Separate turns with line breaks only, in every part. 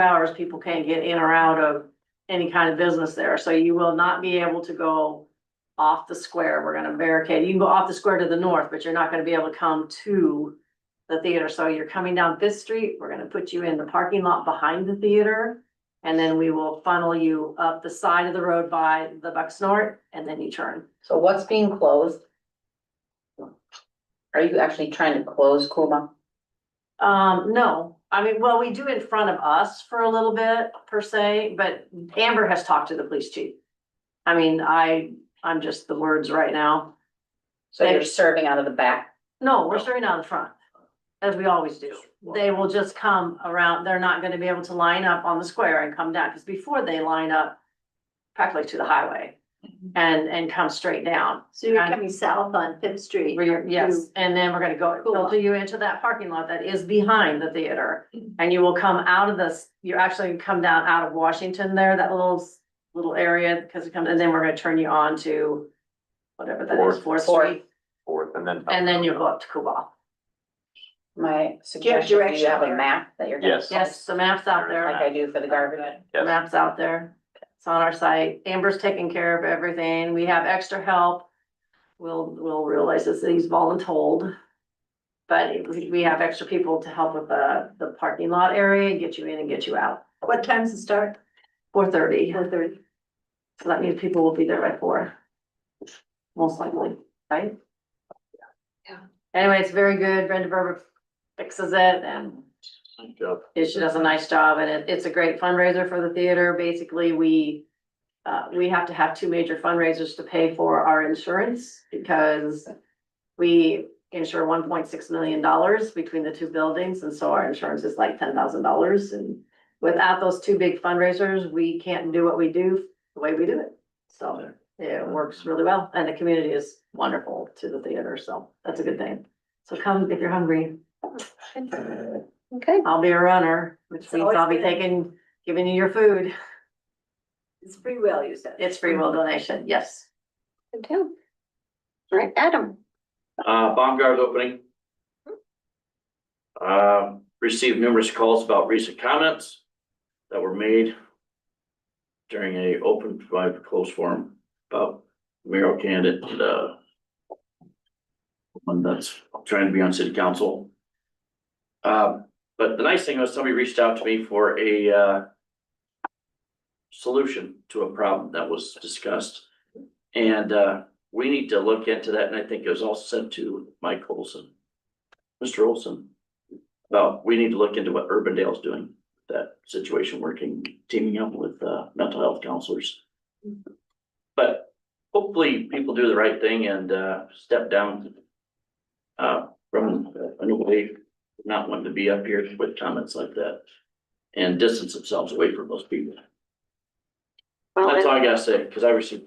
hours, people can't get in or out of any kind of business there, so you will not be able to go off the square, we're gonna barricade, you can go off the square to the north, but you're not gonna be able to come to the theater, so you're coming down Fifth Street, we're gonna put you in the parking lot behind the theater, and then we will funnel you up the side of the road by the Bucksnort, and then you turn.
So what's being closed? Are you actually trying to close Kuma?
Um, no, I mean, well, we do in front of us for a little bit per se, but Amber has talked to the police chief. I mean, I, I'm just the words right now.
So you're
They-
serving out of the back?
No, we're starting out in front, as we always do. They will just come around, they're not gonna be able to line up on the square and come down, cause before they line up practically to the highway and, and come straight down.
So you're
And-
coming south on Fifth Street.
We're, yes, and then we're gonna go,
Cool.
filter you into that parking lot that is behind the theater.
Mm-hmm.
And you will come out of this, you actually come down out of Washington there, that little, s- little area, because it comes, and then we're gonna turn you on to whatever that is,
Fourth.
Fourth
Fourth.
Street,
Fourth and then.
and then you go up to Kubal.
My suggestion, do you
direction
have a
there?
map that you're? gonna
Yes.
Yes, the map's out
post, Like
there,
I do for the garbage?
the map's out there. It's on our site. Amber's taking care of everything. We have extra help. We'll, we'll realize this, he's voluntold. But it- we we have extra people to help with the, the parking lot area, get you in and get you out.
What time's the start?
Four thirty,
Four thirty.
so that means people will be there by four. Most likely, right?
Yeah.
Anyway, it's very good. Brenda Berber fixes it and
Good job.
it- she does a nice job and it, it's a great fundraiser for the theater. Basically, we. Uh, we have to have two major fundraisers to pay for our insurance because. We insure one point six million dollars between the two buildings and so our insurance is like ten thousand dollars and. Without those two big fundraisers, we can't do what we do the way we do it. So it works really well and the community is wonderful to the theater, so that's a good thing. So come if you're hungry.
Okay.
I'll be a runner, which
It's
means
always
I'll be
good.
taking, giving you your food.
It's free will, you said.
It's free will donation, yes.
All right, Adam.
Uh, Baumgart's opening. Um, received numerous calls about recent comments that were made during a open, by closed forum about mayoral candidate, uh, one that's trying to be on city council. Um, but the nice thing was somebody reached out to me for a, uh, solution to a problem that was discussed. And, uh, we need to look into that, and I think it was also sent to Mike Olson. Mr. Olson. About, we need to look into what Urbandale's doing, that situation, working, teaming up with uh mental health counselors. But hopefully people do the right thing and uh step down. Uh, from a new way, not wanting to be up here with comments like that. And distance themselves away from those people. That's all I gotta say, because I received.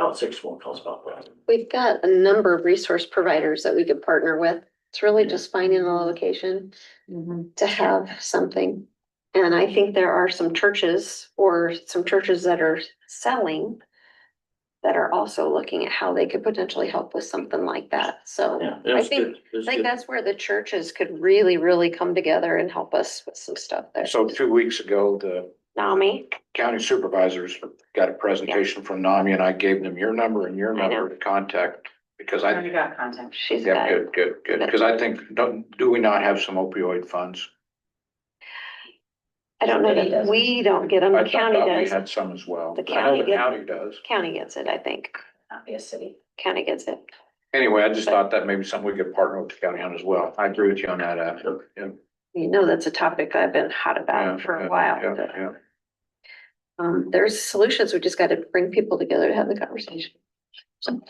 About six phone calls about that.
We've got a number of resource providers that we could partner with. It's really just finding a location
Mm-hmm.
to have something. And I think there are some churches or some churches that are selling that are also looking at how they could potentially help with something like that. So
Yeah, it was
think-
good. It was
I think
good.
that's where the churches could really, really come together and help us with some stuff there.
So two weeks ago, the
Nami,
county supervisors got a presentation from NAMI and I gave them your number and your
I know.
number to contact. Because
I already
I,
got contact.
she's
yeah,
got it.
good, good, good. Because I think, don't, do we not have some opioid funds?
I don't know
Somebody
that
does.
we don't get them.
I
The
thought
county
We
does.
had some as well.
The
I know
county did.
County does.
County gets it, I think.
Not be a city.
County gets it.
Anyway, I just thought that maybe something we could partner with the county on as well. I agree with you on that, Ab. Yeah,
You know, that's a topic I've been hot about
yeah,
for
yeah,
a while.
yeah,
but,
yeah.
Um, there's solutions. We just got to bring people together to have the conversation. So,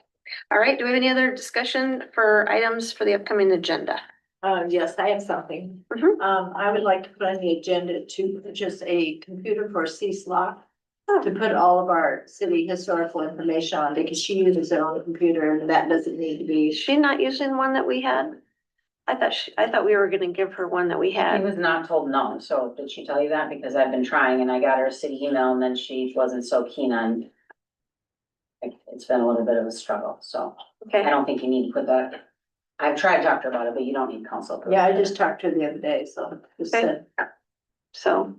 all right, do we have any other discussion for items for the upcoming agenda?
Uh, yes, I have something.
Mhm.
Um, I would like to put on the agenda to purchase a computer for C slot.
Oh.
To put all of our city historical information on because she uses her own computer and that doesn't need to be.
Is she not using one that we had? I thought she, I thought we were gonna give her one that we
He
had.
was not told no, so did she tell you that? Because I've been trying and I got her a city email and then she wasn't so keen on. It- It's been a little bit of a struggle, so I
Mm-hmm.
Okay,
don't think you need to put that. I've tried to talk to her about it, but you don't need council. approval.
Yeah, I just talked to her the other day, so just
Okay.
said,
so